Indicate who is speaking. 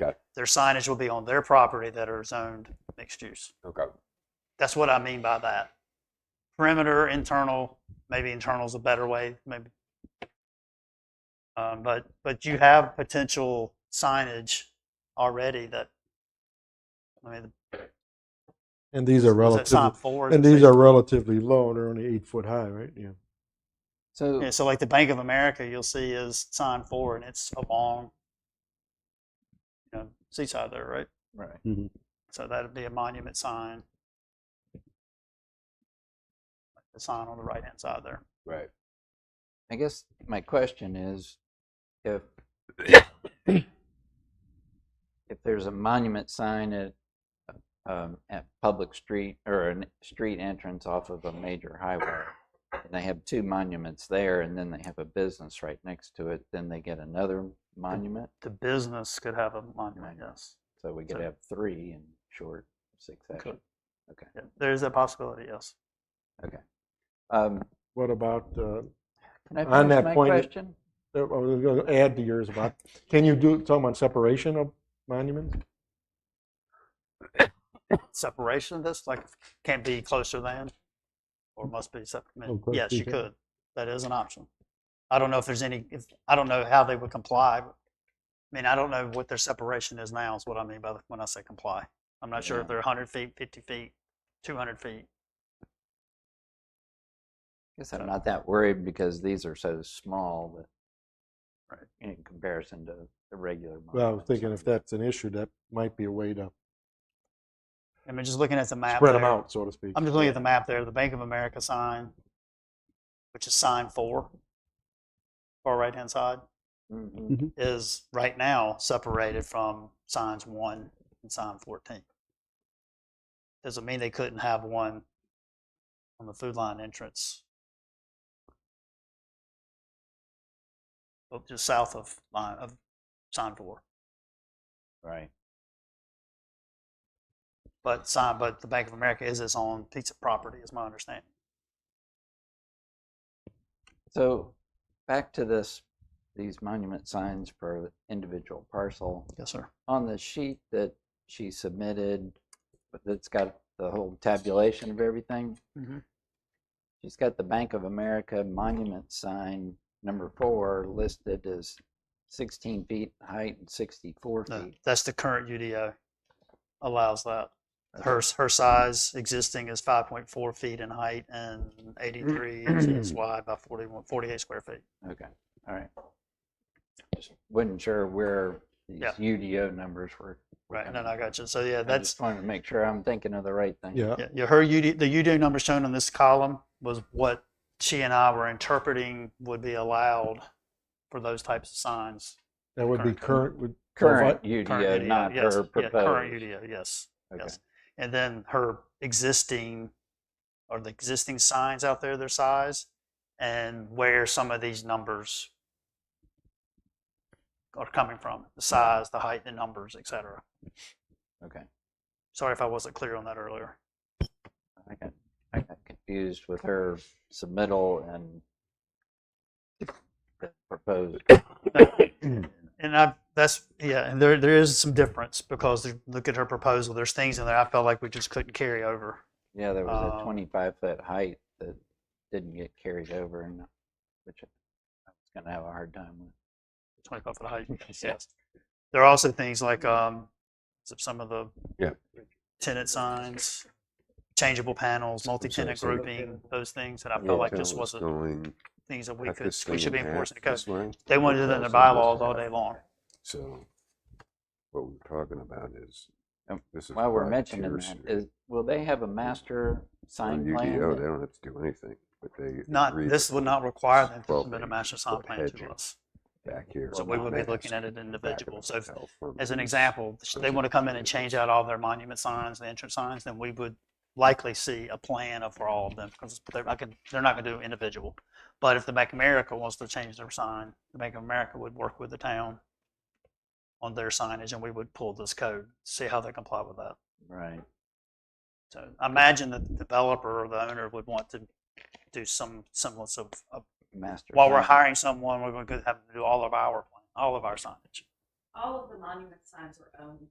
Speaker 1: Okay.
Speaker 2: Their signage will be on their property that are zoned mixed use.
Speaker 1: Okay.
Speaker 2: That's what I mean by that. Perimeter, internal, maybe internal is a better way, maybe. Um, but, but you have potential signage already that, I mean,
Speaker 3: And these are
Speaker 2: was it sign
Speaker 3: relatively,
Speaker 2: four?
Speaker 3: and these are relatively low, and they're only eight foot high, right? Yeah.
Speaker 4: So
Speaker 2: Yeah, so like the Bank of America, you'll see is sign four and it's along, you know, seaside there, right?
Speaker 4: right.
Speaker 2: So that'd be a monument sign. The sign on the right hand side there.
Speaker 1: Right.
Speaker 4: I guess my question is if if there's a monument sign at um, at public street or a n- street entrance off of a major highway, and they have two monuments there, and then they have a business right next to it, then they get another monument.
Speaker 2: The business could have a monument, yes.
Speaker 4: So we could
Speaker 2: So-
Speaker 4: have three in short succession.
Speaker 2: Yeah, there is that possibility, yes.
Speaker 4: Um,
Speaker 3: What about, uh,
Speaker 4: can I
Speaker 3: On
Speaker 4: finish
Speaker 3: that
Speaker 4: my
Speaker 3: point, it-
Speaker 4: question?
Speaker 3: I was going to add to yours about, can you do, talking about separation of monuments?
Speaker 2: Separation of this, like can't be closer than or must be separate.
Speaker 3: Oh, close
Speaker 2: Yes,
Speaker 3: to
Speaker 2: you
Speaker 3: each other.
Speaker 2: could. That is an option. I don't know if there's any, if, I don't know how they would comply. but- I mean, I don't know what their separation is now is what I mean by the- when I say comply. I'm not sure if
Speaker 4: Yeah.
Speaker 2: they're hundred feet, fifty feet, two hundred feet.
Speaker 4: Guess I'm not that worried because these are so small that,
Speaker 2: Right.
Speaker 4: in comparison to the regular.
Speaker 3: Well, I was
Speaker 4: monuments.
Speaker 3: thinking if that's an issue, that might be a way to
Speaker 2: I mean, just looking at the map.
Speaker 3: spread them
Speaker 2: there,
Speaker 3: out, so to speak.
Speaker 2: I'm just looking at the map there, the Bank of America sign, which is sign four, far right hand side,
Speaker 4: Mhm.
Speaker 2: is right now separated from signs one and sign 14. Doesn't mean they couldn't have one on the food line entrance. Oh, Just south of line of sign four,
Speaker 4: Right.
Speaker 2: but sign, but the Bank of America is its own piece of property, is my understanding.
Speaker 4: So back to this, these monument signs per individual parcel.
Speaker 2: Yes, sir.
Speaker 4: On the sheet that she submitted, that's got the whole tabulation of everything.
Speaker 3: Mm-hmm.
Speaker 2: Mhm.
Speaker 4: She's got the Bank of America monument sign number four listed as sixteen feet height and sixty-four
Speaker 2: No,
Speaker 3: Ah.
Speaker 4: feet.
Speaker 2: that's the current UDO allows that. Her, her size existing is five point four feet in height and eighty-three inches
Speaker 4: Mm-hmm.
Speaker 2: wide by 41 48 square feet.
Speaker 4: Okay, all right. Just Wasn't sure where these
Speaker 2: Yeah.
Speaker 4: UDO numbers were. were
Speaker 2: Right, no,
Speaker 4: coming
Speaker 2: no, I
Speaker 4: from.
Speaker 2: got you. So yeah,
Speaker 4: I
Speaker 2: that's,
Speaker 4: just wanted to make sure I'm thinking of the right thing.
Speaker 3: Yeah.
Speaker 2: yeah, yeah, her UD, the UDO number shown in this column was what she and I were interpreting would be allowed for those types of signs.
Speaker 3: That would be
Speaker 2: current-
Speaker 3: current, would.
Speaker 2: Current
Speaker 4: Current UDO, not
Speaker 2: yes,
Speaker 4: her
Speaker 2: yeah, Current
Speaker 4: proposed.
Speaker 2: UDO, yes.
Speaker 4: Okay.
Speaker 2: Yes. And then her existing, or the existing signs out there, their size, and where some of these numbers are coming from, the size, the height, the numbers, et cetera.
Speaker 4: Okay,
Speaker 2: Sorry if I wasn't clear on that earlier.
Speaker 4: I got, I got confused with her submittal and the proposed.
Speaker 2: And I, that's, yeah, and there, there is some difference because there- look at her proposal, there's things in there I felt like we just couldn't carry over.
Speaker 4: Yeah, there was
Speaker 2: Um,
Speaker 4: a twenty-five foot height that didn't get carried over and which I was gonna have a hard time with.
Speaker 2: 25 foot height.
Speaker 4: Yeah.
Speaker 2: Yes. There are also things like um, s- some of the
Speaker 1: Yeah.
Speaker 2: tenant signs, changeable panels, multi-tenant
Speaker 1: so-
Speaker 2: grouping, those things that I felt like just wasn't
Speaker 1: Going,
Speaker 2: things that we
Speaker 1: cut
Speaker 2: could,
Speaker 1: this
Speaker 2: we
Speaker 1: thing
Speaker 2: should be
Speaker 1: in half
Speaker 2: enforcing the code.
Speaker 1: this way.
Speaker 2: They wanted it in the
Speaker 1: Cut this thing this
Speaker 2: bylaws all
Speaker 1: way.
Speaker 2: day long.
Speaker 1: So what we're talking about is.
Speaker 4: Um,
Speaker 1: this is
Speaker 4: While we're
Speaker 1: why
Speaker 4: mentioning
Speaker 1: Pierce
Speaker 4: that,
Speaker 1: and-
Speaker 4: is, will they have a master
Speaker 1: on
Speaker 4: sign plan?
Speaker 1: UDO,
Speaker 4: that-
Speaker 1: they don't have to do anything, but they.
Speaker 2: Not,
Speaker 1: agreed
Speaker 2: this would not require them to
Speaker 1: Well,
Speaker 2: submit a
Speaker 1: they
Speaker 2: master sign
Speaker 1: put
Speaker 2: plan to
Speaker 1: hedges
Speaker 2: us.
Speaker 1: Back here.
Speaker 2: So
Speaker 1: on
Speaker 2: we
Speaker 1: the
Speaker 2: would be looking at
Speaker 1: mask,
Speaker 2: it
Speaker 1: the back of
Speaker 2: individual.
Speaker 1: the
Speaker 2: So if-
Speaker 1: hotel from
Speaker 2: as an
Speaker 1: these.
Speaker 2: example,
Speaker 1: those
Speaker 2: they
Speaker 1: are
Speaker 2: want to come in and
Speaker 1: computers.
Speaker 2: change out all their monument signs, the entrance signs, then we would likely see a plan of for all of them, because they're, I could, they're not gonna do individual. But if the Bank of America wants to change their sign, the Bank of America would work with the town on their signage, and we would pull this code, see how they comply with that.
Speaker 4: Right.
Speaker 2: So I imagine that the developer or the owner would want to do some semblance of, of
Speaker 4: Master.
Speaker 2: while we're
Speaker 4: plan.
Speaker 2: hiring someone, we're gonna have to do all of our, all of our signage.
Speaker 5: all of the monument signs were owned